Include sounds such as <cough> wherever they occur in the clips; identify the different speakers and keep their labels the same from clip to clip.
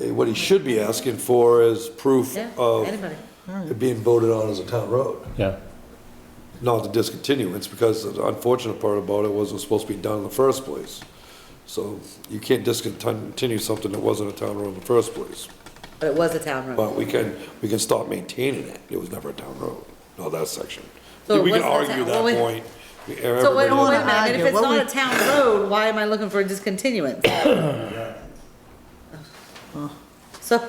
Speaker 1: eh, what Oh. he should be asking for is proof
Speaker 2: Yeah,
Speaker 1: of
Speaker 2: anybody.
Speaker 1: it being voted on as a town road,
Speaker 3: Yeah,
Speaker 1: not the discontinuance, because the unfortunate part about it was it was supposed to be done in the first place. So you can't discontinue something that wasn't a town road in the first place.
Speaker 2: But it was a town road.
Speaker 1: But we can, we can stop maintaining it. It was never a town road, not that section.
Speaker 2: So it
Speaker 1: We can
Speaker 2: wasn't a
Speaker 1: argue
Speaker 2: town- well,
Speaker 1: that
Speaker 2: we-
Speaker 1: point. We-
Speaker 2: So wait,
Speaker 1: everybody-
Speaker 2: wait a minute,
Speaker 4: wanna
Speaker 2: and if
Speaker 4: argue,
Speaker 2: it's
Speaker 4: what we-
Speaker 2: not a town road, why am I looking for a discontinuance? <coughs> So,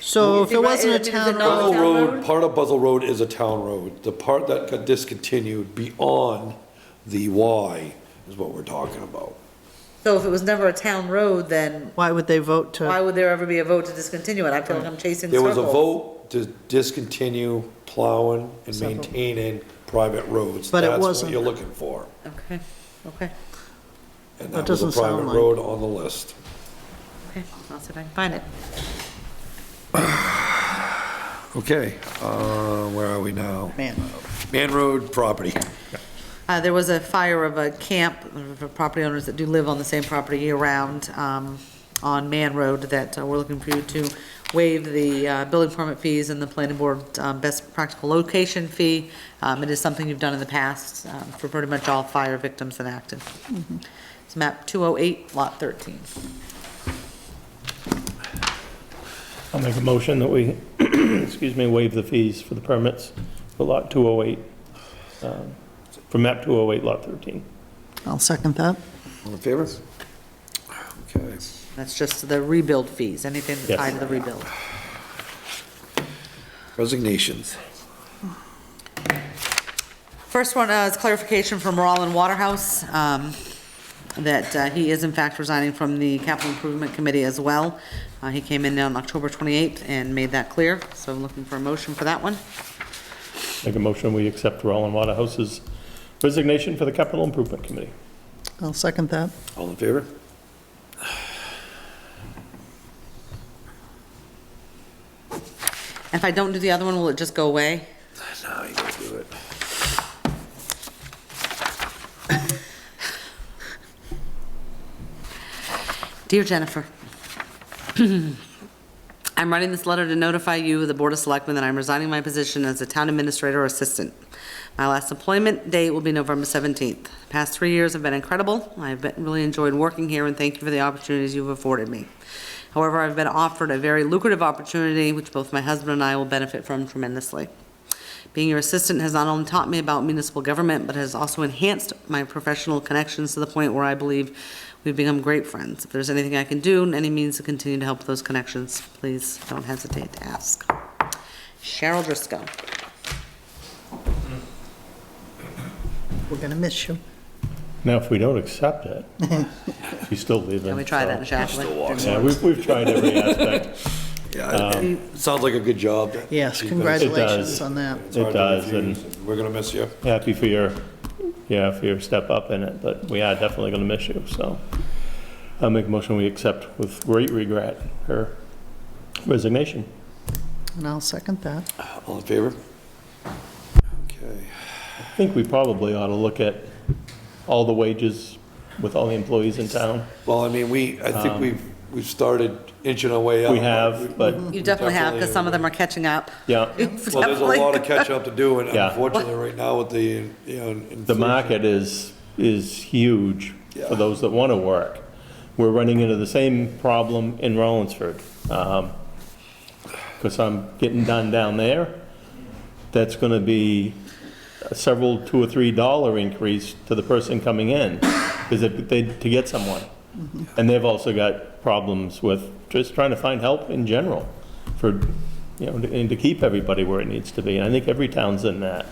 Speaker 4: So if
Speaker 2: You're
Speaker 4: it
Speaker 2: right,
Speaker 4: wasn't a
Speaker 2: it- it is
Speaker 4: town
Speaker 2: not-
Speaker 4: road,
Speaker 1: Buzzell
Speaker 2: Town
Speaker 1: Road,
Speaker 2: road?
Speaker 1: part of Buzzell Road is a town road. The part that got discontinued beyond the Y is what we're talking about.
Speaker 2: so if it was never a town road, then
Speaker 4: why would they vote to?
Speaker 2: why would there ever be a vote to discontinue it? I feel like I'm chasing
Speaker 1: There was a
Speaker 2: circles.
Speaker 1: vote to discontinue plowing and maintaining private roads.
Speaker 4: But it
Speaker 1: That's what
Speaker 4: wasn't.
Speaker 1: you're looking for.
Speaker 2: Okay, okay,
Speaker 1: And
Speaker 4: That
Speaker 1: that was a
Speaker 4: doesn't sound
Speaker 1: private
Speaker 4: like-
Speaker 1: road on the list.
Speaker 2: okay, I'll see if I can find it.
Speaker 1: Okay, uh, where are we now?
Speaker 4: Man,
Speaker 1: Man Road property.
Speaker 2: Uh, there was a fire of a camp, for property owners that do live on the same property year-round, um, on Man Road, that uh, we're looking for you to waive the, uh, building permit fees and the planning board, um, best practical location fee. Um, it is something you've done in the past, um, for pretty much all fire victims in Acton. It's map two oh eight, lot thirteen.
Speaker 3: I'll make a motion that we, <clears throat> excuse me, waive the fees for the permits for lot 208, um, for map 208, lot 13.
Speaker 4: I'll second that.
Speaker 1: All in favor? Okay.
Speaker 2: That's just the rebuild fees, anything
Speaker 3: Yes.
Speaker 2: tied to the rebuild.
Speaker 1: Resignations.
Speaker 2: First one uh, is clarification from Roland Waterhouse, um, that uh, he is in fact resigning from the Capital Improvement Committee as well. Uh, He came in on October 28th and made that clear, so I'm looking for a motion for that one.
Speaker 3: Make a motion, we accept Roland Waterhouse's resignation for the Capital Improvement Committee.
Speaker 4: I'll second that.
Speaker 1: All in favor?
Speaker 2: If I don't do the other one, will it just go away?
Speaker 1: No, you gotta do it.
Speaker 2: Dear Jennifer, <clears throat> I'm writing this letter to notify you, the Board of Selectmen, that I'm resigning my position as a town administrator assistant. My last employment date will be November 17th. The Past three years have been incredible. I've been- really enjoyed working here, and thank you for the opportunities you've afforded me. However, I've been offered a very lucrative opportunity, which both my husband and I will benefit from tremendously. Being your assistant has not only taught me about municipal government, but has also enhanced my professional connections to the point where I believe we've become great friends. If there's anything I can do, in any means to continue to help those connections, please don't hesitate to ask. Cheryl Driscoll.
Speaker 4: We're going to miss you.
Speaker 3: Now, if we don't accept it,
Speaker 2: <laughs>
Speaker 3: she's still leaving.
Speaker 2: Can we try that,
Speaker 3: so-
Speaker 2: shall
Speaker 3: Yeah,
Speaker 2: we?
Speaker 3: we've, we've tried every
Speaker 2: <laughs>
Speaker 3: aspect.
Speaker 1: Yeah, it- it sounds like a good job.
Speaker 4: Yes,
Speaker 1: She's been-
Speaker 4: congratulations on that.
Speaker 1: It's hard to
Speaker 3: does,
Speaker 1: refuse. We're gonna miss you.
Speaker 3: Happy for your, yeah, for your step up in it, but we are definitely going to miss you, so. I'll make a motion, we accept with great regret her resignation.
Speaker 4: And I'll second that.
Speaker 1: All in favor? Okay.
Speaker 3: I think we probably ought to look at all the wages with all the employees in town.
Speaker 1: Well, I mean, we, I think we've, we've started inching our way up.
Speaker 3: Um, We have, but,
Speaker 2: You definitely have, because some of them are catching up. <laughs>
Speaker 3: yeah,
Speaker 1: Well, there's a lot of
Speaker 2: Definitely. <laughs>
Speaker 1: catch up to do, and
Speaker 3: <laughs> Yeah.
Speaker 1: unfortunately, right now with the, you know.
Speaker 3: the
Speaker 1: inflation-
Speaker 3: market is, is huge
Speaker 1: Yeah.
Speaker 3: for those that want to work. We're running into the same problem in Rollinsford. Because I'm getting done down there, that's going to be several, two or three dollar increase to the person coming in, because they, to get someone. And they've also got problems with just trying to find help in general for, you know, and to keep everybody where it needs to be. And I think every town's in that.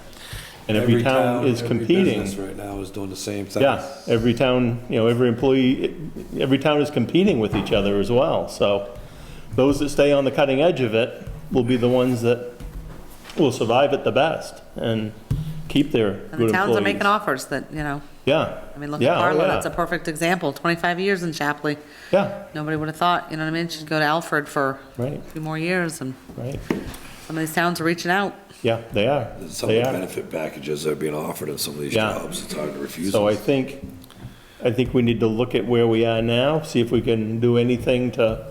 Speaker 3: And every town is
Speaker 1: every
Speaker 3: competing.
Speaker 1: business Right now is doing the same thing.
Speaker 3: Yeah, every town, you know, every employee, every town is competing with each other as well. So those that stay on the cutting edge of it will be the ones that will survive it the best and keep their good
Speaker 2: And the
Speaker 3: employees.
Speaker 2: towns are making offers that, you know,
Speaker 3: Yeah.
Speaker 2: I mean, look
Speaker 3: Yeah,
Speaker 2: at
Speaker 3: oh,
Speaker 2: Carla,
Speaker 3: yeah.
Speaker 2: that's a perfect example, 25 years in Chapley.
Speaker 3: Yeah,
Speaker 2: Nobody would have thought, you know what I mean? She'd go to Alfred for a
Speaker 3: right,
Speaker 2: few more years, and
Speaker 3: right.
Speaker 2: some of these towns are reaching out.
Speaker 3: Yeah, they are.
Speaker 1: Some of
Speaker 3: They
Speaker 1: the
Speaker 3: are.
Speaker 1: benefit packages that are being offered in some of these
Speaker 3: Yeah.
Speaker 1: jobs, it's hard to refuse
Speaker 3: So I
Speaker 1: them.
Speaker 3: think, I think we need to look at where we are now, see if we can do anything to